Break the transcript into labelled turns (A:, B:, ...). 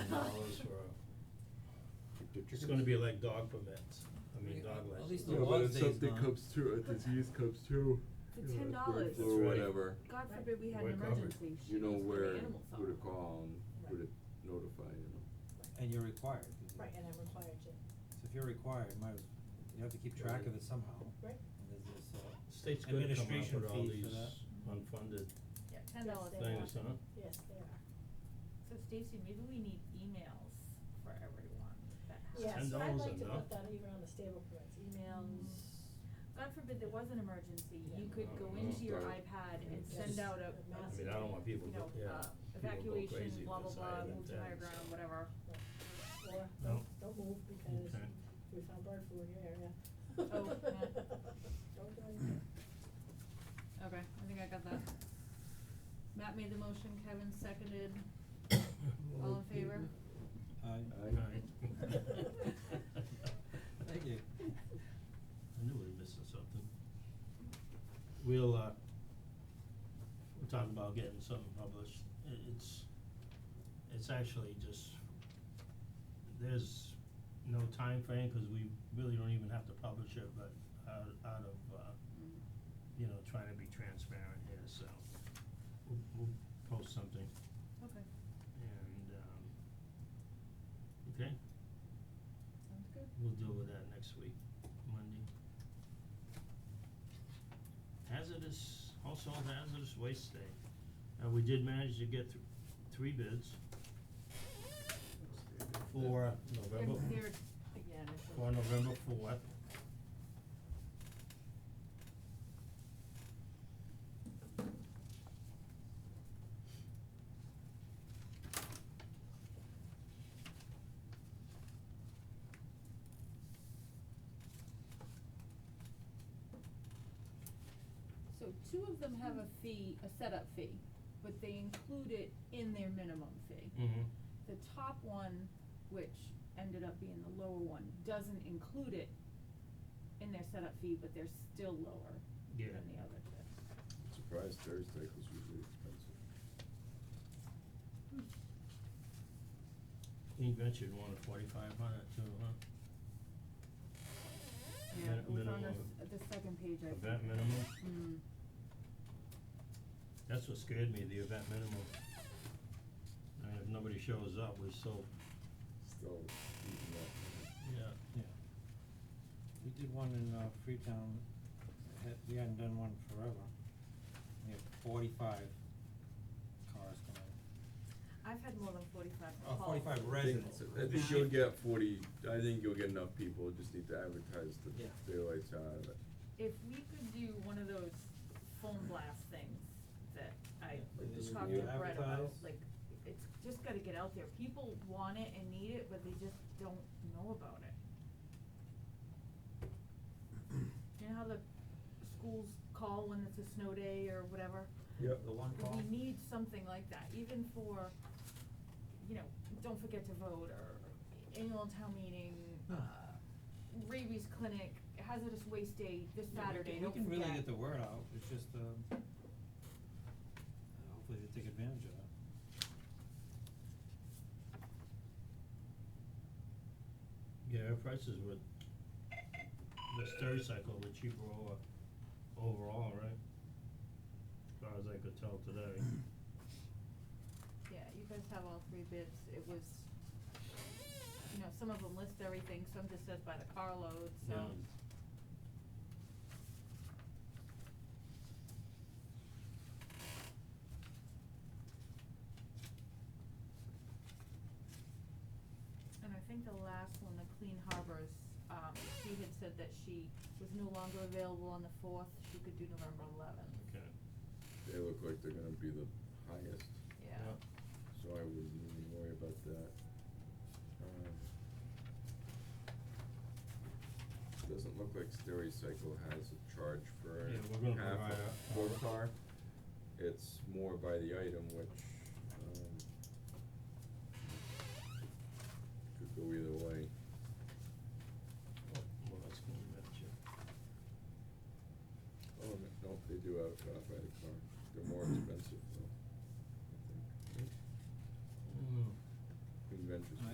A: They're
B: It's
A: chickens.
B: gonna be like dog permits, I mean, dog
C: At
B: license.
C: least the
A: Yeah,
C: law
A: but if
C: stays
A: something
C: gone.
A: comes through, a disease comes through,
D: For
A: you know,
D: ten
A: it's bird
D: dollars,
A: flu or
B: That's right.
A: whatever,
D: God forbid we had
B: We're
D: an
B: covered.
D: emergency, she
A: you know
D: goes to the
A: where,
D: animal
A: who to
D: farm.
A: call and who to
E: Right.
A: notify, you know.
C: And you're required, 'cause you-
E: Right, and I'm required to,
C: so if you're required, might as, you have to keep track of it somehow.
E: right?
C: And there's this, uh,
B: State's gonna come up
C: Administration
B: with all
C: fee for
B: these
C: that.
B: unfunded
E: Yeah.
D: Ten dollars an
B: things, huh?
E: Yes, they are.
F: So Stacy, maybe we need emails for everyone that has.
E: Yes,
B: $10
E: I'd like to
B: enough?
E: put that even on the stable permits, emails,
D: God forbid there was an emergency, you
E: Yeah.
D: could
B: Oh,
D: go
B: no.
D: into your
A: Right.
D: iPad and
E: Yeah.
D: send
E: Just
D: out a,
E: a
B: I
E: massive
B: mean, I don't want people
D: you know,
B: to, yeah,
D: uh,
B: people go
D: evacuation,
B: crazy
D: blah,
B: if
D: blah,
B: it's
D: blah,
B: higher than
D: move to
B: ten,
D: higher ground,
B: so.
D: whatever.
E: or
B: No.
E: don't, don't move because
B: Okay.
E: we found bird flu in your area.
D: Oh, yeah.
E: Don't go anywhere.
D: Okay, I think I got that. Matt made the motion, Kevin seconded, all in favor?
C: I-
B: Aye.
C: Thank you.
D: Mm,
B: I knew we were missing something. We'll, uh, we're talking about getting something published, it, it's, it's actually just, there's no time frame cause we really don't even have to publish it, but out, out of, uh, you know, trying to be transparent here, so we'll, we'll post something
D: Okay,
B: and, um, okay,
D: sounds good.
B: we'll deal with that next week, Monday. Hazardous, household hazardous waste day. Uh, we did manage to get th- three bids for November,
D: They're- they're- again, it's a-
B: for November fourth.
D: So two of them have a fee, a setup fee, but they include it in their minimum fee.
B: Mm-hmm.
D: The top one, which ended up being the lower one, doesn't include it in their setup fee, but they're still lower
B: Yeah.
D: than the other two.
A: Surprise Thursday, 'cause usually expensive.
B: Queen ventured one at forty-five hundred too, huh?
D: Yeah, it
B: Min-
D: was on the,
B: minimum.
D: s- the second page, I think.
B: Event minimum,
D: Mm.
B: that's what scared me, the event minimum. I mean, if nobody shows up, we still,
A: Still eating that.
B: yeah,
C: Yeah. We did one in uh Freetown, had, we hadn't done one forever. We had forty-five cars come in.
D: I've had more than forty-five
C: Uh,
B: Oh,
D: calls.
C: 45
A: I think-
C: residents.
A: I think you'll get forty, I think you'll get enough people, just need to advertise the
C: Yeah.
A: daylights out of it.
D: If we could do one of those phone blast things that I
C: Yeah, like
A: this
D: talked
A: we
D: to Brett about,
C: advertise.
D: like, it's just gotta get out there. People want it and need it, but they just don't know about it. You know how the schools call when it's a snow day or whatever?
A: Yep.
C: The one call.
D: We need something like that, even for, you know, don't forget to vote or annual town meeting, uh,
C: Huh.
D: rabies clinic, hazardous waste day this
C: Yeah, we
D: Saturday,
C: can-
D: don't forget.
C: We can really get the word out, it's just um uh, hopefully they take advantage of that.
B: yeah, our prices with the Stericycle were cheaper over, overall, right? As far as I could tell today.
D: Yeah, you guys have all three bids, it was, you know, some of them list everything, some just says by the carload, so. um,
B: Yeah.
D: And I think the last one, the Clean Harbors, um, she had said that she was no longer available on the fourth, she could do November eleventh.
B: Okay.
A: They look like they're gonna be the highest,
D: Yeah.
A: so I wouldn't even worry about that. Um, Doesn't look like Stericycle has a charge for
B: Yeah, we're gonna
A: half
B: provide
A: a
B: a-
A: four car. It's more by the item, which, um, could go either way.
B: Well, well, that's gonna match it.
A: Oh, no, no, they do have uh, by the car. They're more expensive though, I think.
B: Mm.
A: Inventors.